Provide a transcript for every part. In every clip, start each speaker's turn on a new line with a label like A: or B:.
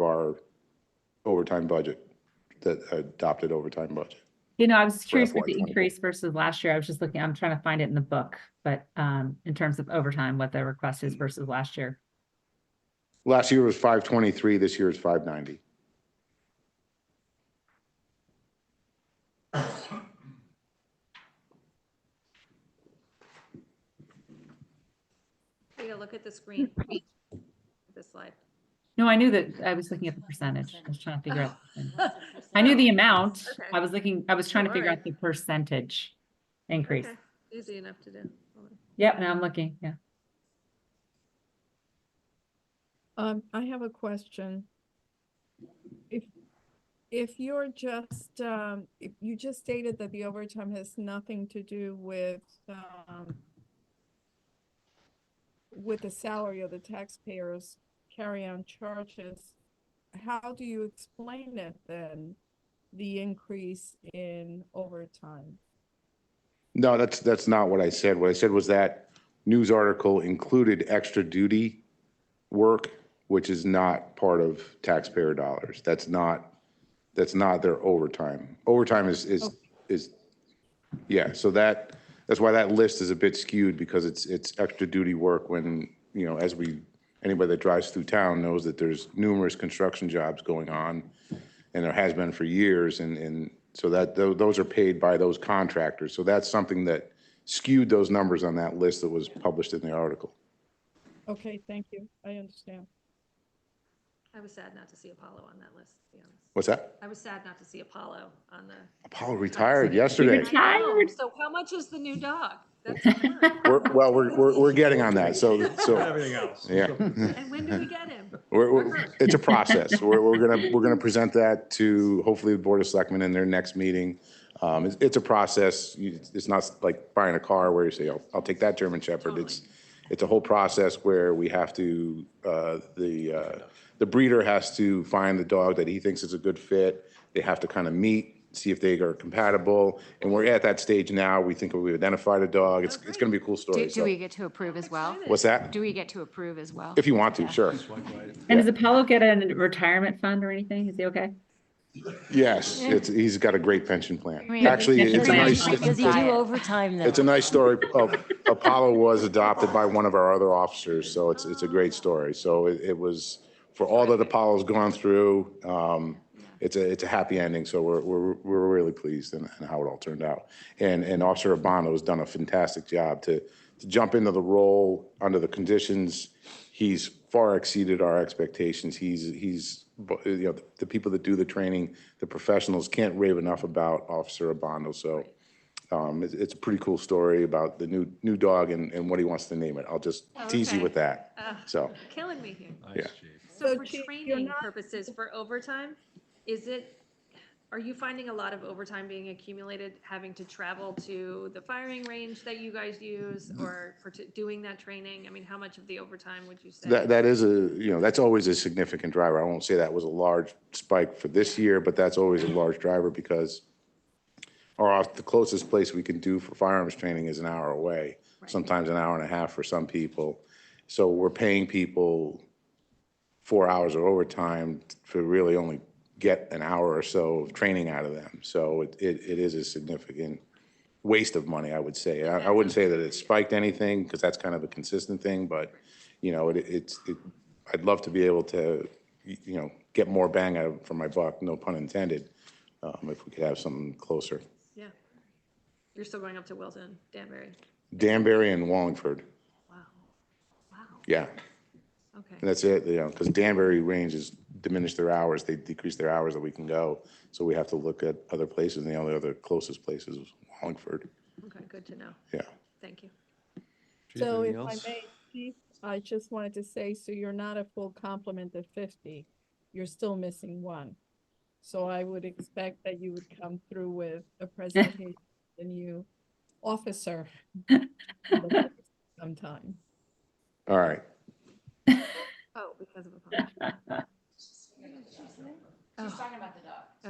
A: our overtime budget, that adopted overtime budget.
B: You know, I was curious
A: FY
B: with the
A: 24.
B: increase versus last year. I was just looking, I'm trying to find it in the book, but um, in terms of overtime, what the request is versus last year.
A: Last year was 523, this year is 590.
C: Take a look at the screen, the slide.
B: No, I knew that, I was looking at the percentage. I was trying to figure out. the percentage. I knew
C: Okay,
B: the amount. I
C: Okay.
B: was looking, I was trying to figure out
C: Alright.
B: the percentage increase.
C: Easy enough to do. Hold on.
B: Yep, now I'm looking, yeah.
D: Um, I have a question. If, if you're just, um, if you just stated that the overtime has nothing to do with, um, with the salary of the taxpayers carry-on charges, how do you explain it then, the increase in overtime?
A: No, that's, that's not what I said. What I said was that news article included extra duty work, which is not part of taxpayer dollars. That's not, that's not their overtime. Overtime is, is, is, yeah, so that, that's why that list is a bit skewed because it's, it's extra duty work when, you know, as we, anybody that drives through town knows that there's numerous construction jobs going on and there has been for years, and, and so that, tho- those are paid by those contractors. So that's something that skewed those numbers on that list that was published in the article.
D: Okay, thank you. I understand.
C: I was sad not to see Apollo on that list, to be honest.
A: What's that?
C: I was sad not to see Apollo on the.
A: Apollo retired yesterday.
C: I know,
B: Tired.
C: So how much is the new dog? That's what I'm wondering.
A: We're, well, we're, we're, we're getting on that, so, so,
E: Everything else.
A: yeah.
C: And when do we get him?
A: We're, we're, it's a process. We're, we're gonna, we're gonna present that to hopefully the Board of Selectmen in their next meeting. Um, it's, it's a process. You- It's not like buying a car where you say, "Oh, I'll, I'll take that German Shepherd. It's, it's a whole process where we have to, uh, the, uh, the breeder has to find the dog that he thinks is a good fit. They have to kind of meet, see if they are compatible. And we're at that stage now. We think we've identified a dog. It's, it's gonna be a cool
F: Do,
A: story.
F: do we
A: So,
F: get to approve as well?
A: what's that?
F: Do we get to approve as well?
A: If you want to, sure.
B: And does Apollo get a retirement fund or anything? Is he okay?
A: Yes, it's, he's got a great pension plan.
F: Great
A: Actually,
B: pension
A: it's a
B: plan.
A: nice,
G: Does he
F: Diet.
G: do overtime though?
A: it's a nice story. Uh, Apollo was adopted by one of our other officers, so it's, it's a great story. So it, it was, for all that Apollo's gone through, um, it's a, it's a happy ending, so we're, we're, we're really pleased in, in how it all turned out. And, and Officer Abano has done a fantastic job to, to jump into the role under the conditions. He's far exceeded our expectations. He's, he's, bu- you know, the people that do the training, the professionals can't rave enough about Officer Abano, so. Um, it's, it's a pretty cool story about the new, new dog and, and what he wants to name it. I'll just tease you
C: Okay.
A: with that.
C: Ah.
A: So,
C: Killing me here.
A: yeah.
C: So
D: So
C: for
D: Chief, you're
C: training
D: not-
C: purposes, for overtime, is it, are you finding a lot of overtime being accumulated, having to travel to the firing range that you guys use or for t- doing that training? I mean, how much of the overtime would you say?
A: That, that is a, you know, that's always a significant driver. I won't say that was a large spike for this year, but that's always a large driver because our, off- the closest place we can do for firearms training is an hour away, sometimes an hour and a half for some people. So we're paying people four hours of overtime to really only get an hour or so of training out of them. So it, it it is a significant waste of money, I would say. I, I wouldn't say that it spiked anything, because that's kind of a consistent thing, but, you know, it, it's, it, I'd love to be able to, y- you know, get more bang out of, for my buck, no pun intended, um, if we could have something closer.
C: Yeah. You're still going up to Wilton, Danbury.
A: Danbury and Wallingford,
C: Wow. Wow.
A: yeah. And
C: Okay.
A: that's it, you know, because Danbury range is diminished their hours, they decrease their hours that we can go. So we have to look at other places, and the only other closest place is Wallingford,
C: Okay. Good to know.
A: yeah.
C: Thank you.
D: So if I may, Chief, I just wanted to say, so you're not a full complement of fifty, you're still missing one. So I would expect that you would come through with a presentation, the new officer. Sometime.
A: All right,
C: Oh, because of a.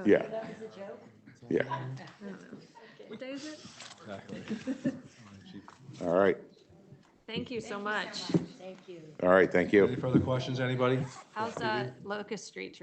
A: yeah. Yeah.
C: What day is it?
A: All right,
C: Thank you so much.
A: all right, thank you.
E: Any further questions, anybody?
C: How's uh, Locust Street